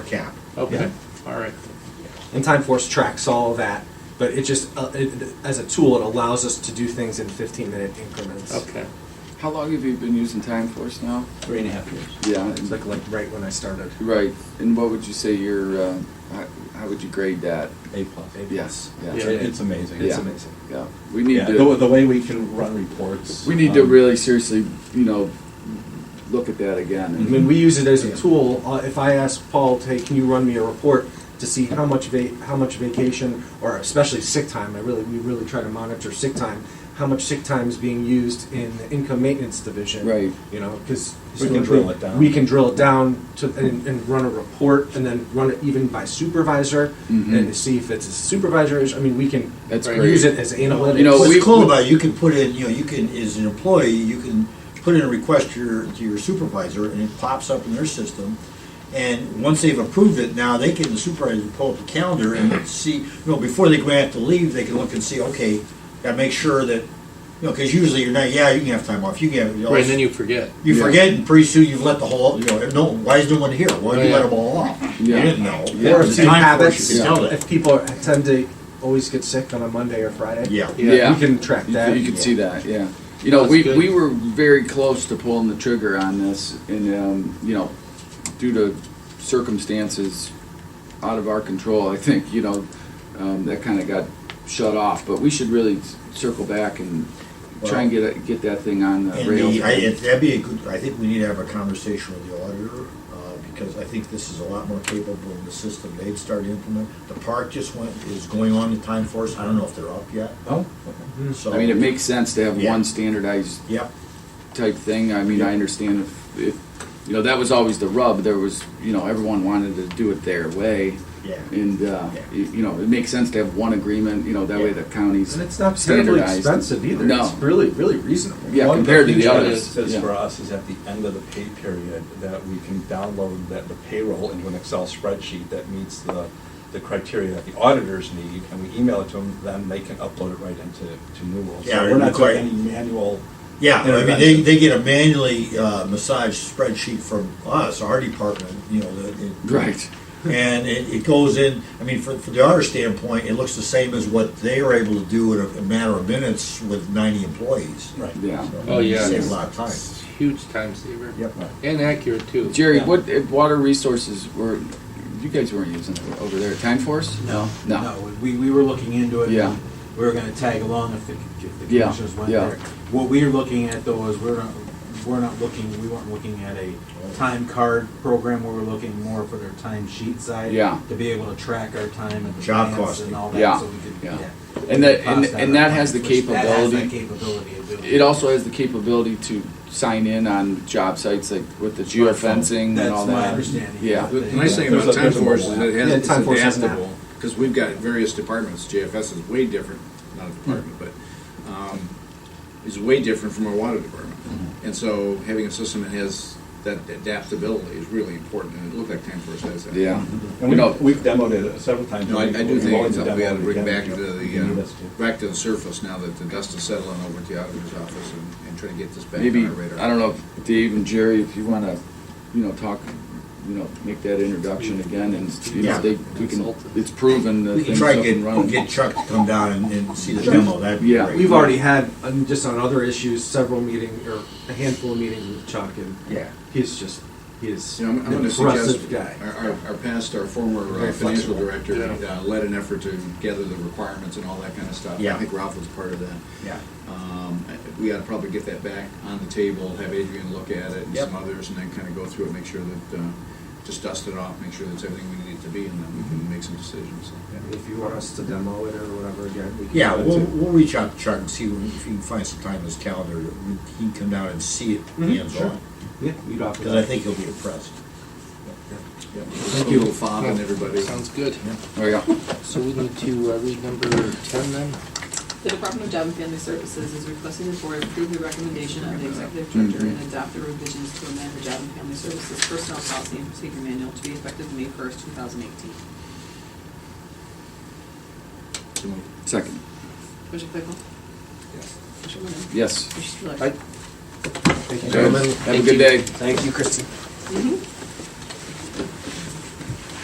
cap. Okay, all right. And Time Force tracks all of that, but it just, uh, it, as a tool, it allows us to do things in 15 minute increments. Okay. How long have you been using Time Force now? Three and a half years. Yeah. It's like, like right when I started. Right, and what would you say your, uh, how, how would you grade that? A plus. Maybe. Yes, yeah. Yeah. It- It's amazing. It's Yeah. amazing. Yeah, we need Yeah, the, to, the way we can run reports. we need to um, really seriously, you know, look at that again. I mean, we use it as a tool. Uh, if I ask Paul, hey, can you run me a report to see how much va- how much vacation or especially sick time? I really we really try to monitor sick time. How much sick time is being used in the income maintenance division? Right. You know, because We can drill it down. We can drill it down to and, and run a report, and then run it even by supervisor, and to see if it's a supervisor. issue. I mean, we can Mm-hmm. That's use great. it as analytics. You know, What's we- cool we- about it, you can put in, you know, you can, as an employee, you can put in a request to your, to your supervisor, and it pops up in their system. And once they've approved it, now they can, the supervisor can pull up the calendar and see, you know, before they go out to leave, they can look and see, okay, gotta make sure that, you know, because usually you're not, yeah, you can have time off, you can have. Right, and then you forget. You Yeah. forget, and pretty soon you've let the whole, you know, no, why is no one here? Why did you let them all off? You Yeah. didn't know. Yeah. or It's if you time for it, habits, you can tell that. if people are- tend to always get sick on a Monday or Friday. Yeah. Yeah. You can track You, that. you can see that, yeah. You know, That's we, good. we were very close to pulling the trigger on this, and um, you know, due to circumstances out of our control, I think you know um, that kind of got shut off. But we should really s- circle back and try and get it, get that thing on the And rails. the, I, it- that'd be a good, I think we need to have a conversation with the auditor, uh, because I think this is a lot more capable in the system they've started to implement. The park just went, is going on the time force, I don't know if they're up yet, Mm-hmm. Oh, okay. so. I mean, it makes sense to have Yeah. one standardized Yep, type thing. I mean, I understand if, if you know that was always the rub. There was you know everyone wanted to do it their way. yeah. And, uh, Yeah. you you know, it makes sense to have one agreement, you know, that way Yeah. the counties. And it's not terribly standardized. expensive either. No. It's really, really reasonable. Yeah, One compared to the feature that others, it Says yeah. for us is at the end of the pay period that we can download that the payroll into an Excel spreadsheet that meets the, the criteria that the auditors need and we email it to them, then they can upload it right into, to Newell. Yeah, So we're not require- doing any manual. Yeah, I mean, they, intervention. they get a manually, uh, massaged spreadsheet from us, our department, you know, the. it- Right. And it, it goes in, I mean, from, from the auditor standpoint, it looks the same as what they were able to do in a, a matter of minutes with ninety employees. Right. Yeah. So, Oh, yeah. Save a lot of time. It's a Huge time saver. Yep. And accurate too. Jerry, Yeah. what if water resources were, you guys weren't using it over there, Time Force? No, No. no, we, we were looking into it. Yeah. and We were gonna tag along if the, if the Yeah, commissioners went yeah. there. What we're looking at though is we're not, we're not looking, we weren't looking at a time card program, we were looking more for their time sheet side. Yeah. To be able to track our time and Job advance costing. and all Yeah, that, so we could, yeah. yeah. And that- and- Cost and that has the which That has that capability. capability of doing. It also has the capability to sign in on job sites like with the geofencing and all That's my that. understanding. Yeah. The nice thing There's a- about Time there's a Force mobile is app. it Yeah, has, it's Time Force has an app. adaptable, because we've got various departments, JFS is way different, not a department, but, um, is way different from our water department. And so having a system that has that adaptability is really important, and it looked like Time Force has that. Yeah. And You know- we've, we've demoed it several times. No, I, I do We've think always it's something we ought to demoed it bring again. back to You the, can do this too. uh, back to the surface now that the dust is settling over at the auditor's office and, and try to get this back Maybe, on our I radar. don't know, if Dave and Jerry, if you want to, you know, talk, you know, make that introduction again and, you Yeah. know, they, we can, it's proven that We can things try up to and get, running. get Chuck to come down and, and see the demo, that'd be Yeah. great. We've already had, um, just on other issues, several meetings or a handful of meetings with Chuck, and Yeah. he's just, he is You know, an I'm, I'm gonna suggest, impressive guy. our, our- our past, our former Very uh, financial flexible. director Yeah. uh, led an effort to gather the requirements and all that kind of stuff. Yeah. I think Ralph was part of that. Yeah. Um, I- We ought to probably get that back on the table, have Adrian look at it and Yep. some others, and then kind of go through it, make sure that, uh, just dust it off, make sure that's everything we need it to be, and then we can make some decisions. If you want us to demo it or whatever again, we can. Yeah, do it we'll, too. we'll reach out to Chuck and see if he can find some time in his calendar, that we- he can come down and see it Mhm, hands sure. on. Yeah, you'd offer Because I that. think he'll be impressed. Thank you. A little fob and everybody. Sounds good. Oh, yeah. So we need to uh, read number ten then? The Department of Job and Family Services is requesting the board approve the recommendation of the executive Mm-hmm. director and adopt the revisions to amend the Job and Family Services Personnel Policy and Procedure Manual to be effective May first, two thousand eighteen. Second, Commissioner Claypool? Yes. Commissioner Lennon? yes. Commissioner Spillier? Aye. Thank you, Have gentlemen. a good day. Thank you, Kristen. Mhm.